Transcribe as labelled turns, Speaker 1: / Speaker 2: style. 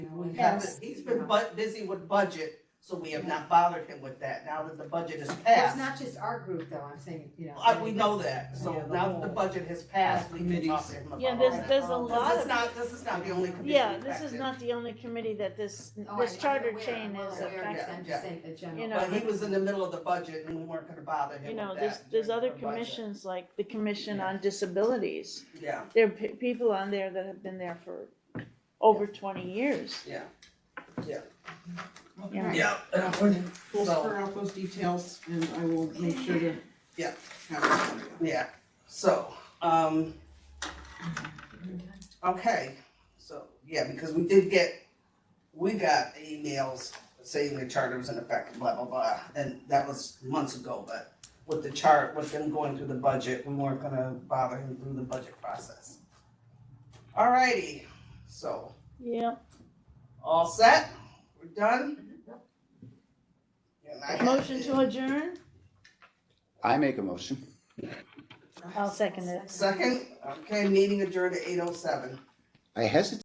Speaker 1: we haven't,
Speaker 2: Yes.
Speaker 1: he's been bu- busy with budget, so we have not bothered him with that, now that the budget is passed.
Speaker 2: It's not just our group though, I'm saying, you know.
Speaker 1: I, we know that,
Speaker 2: Yeah,
Speaker 1: so
Speaker 2: the
Speaker 1: now that the
Speaker 2: whole-
Speaker 1: budget has passed, we can talk to him about
Speaker 3: Yeah,
Speaker 1: all
Speaker 3: there's,
Speaker 1: that.
Speaker 3: there's a
Speaker 2: Um,
Speaker 1: This
Speaker 3: lot
Speaker 1: is
Speaker 3: of,
Speaker 1: not, this is not the only committee.
Speaker 3: yeah, this is
Speaker 1: affected.
Speaker 3: not the only committee that this,
Speaker 2: Oh, I-
Speaker 3: this
Speaker 2: I'm
Speaker 3: charter
Speaker 2: aware,
Speaker 3: chain
Speaker 2: I'm
Speaker 3: is
Speaker 2: aware, yes,
Speaker 3: affecting.
Speaker 2: I'm just saying the general.
Speaker 3: You know,
Speaker 1: But he was in the middle of the budget and we weren't gonna bother him
Speaker 3: You
Speaker 1: with
Speaker 3: know,
Speaker 1: that.
Speaker 3: there's, there's
Speaker 1: during
Speaker 3: other
Speaker 1: the budget.
Speaker 3: commissions, like the Commission
Speaker 1: Yeah.
Speaker 3: on Disabilities.
Speaker 1: Yeah,
Speaker 3: There are pe- people on there that have been there for over twenty years.
Speaker 1: yeah,
Speaker 3: Yeah.
Speaker 1: yeah.
Speaker 4: We'll
Speaker 1: So-
Speaker 4: square out those details and I will make sure to.
Speaker 1: Yeah.
Speaker 4: Have it for you.
Speaker 1: Yeah, so, um. Okay, so, yeah, because we did get, we got emails saying the charter was in effect, blah, blah, blah, and that was months ago, but with the chart, with them going through the budget, we weren't gonna bother him through the budget process. Alrighty, so,
Speaker 3: Yeah,
Speaker 1: all set, we're done? And I have-
Speaker 3: motion to adjourn?
Speaker 5: I make a motion.
Speaker 3: I'll second it.
Speaker 1: Second, okay, meeting adjourned at eight oh seven.
Speaker 5: I hesitate